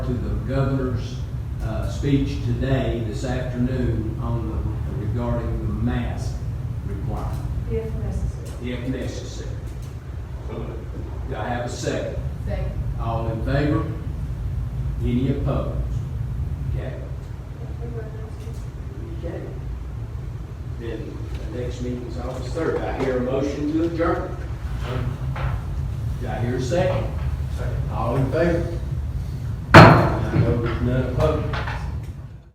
to the governor's uh, speech today, this afternoon, on the, regarding the mask requirement, if necessary. if necessary. Do I have a second? Second. All in favor? Any opposed? Okay. Okay. Then the next meeting's August third. I hear a motion to adjourn. Do I hear a second? Second. All in favor? I know there's none opposed.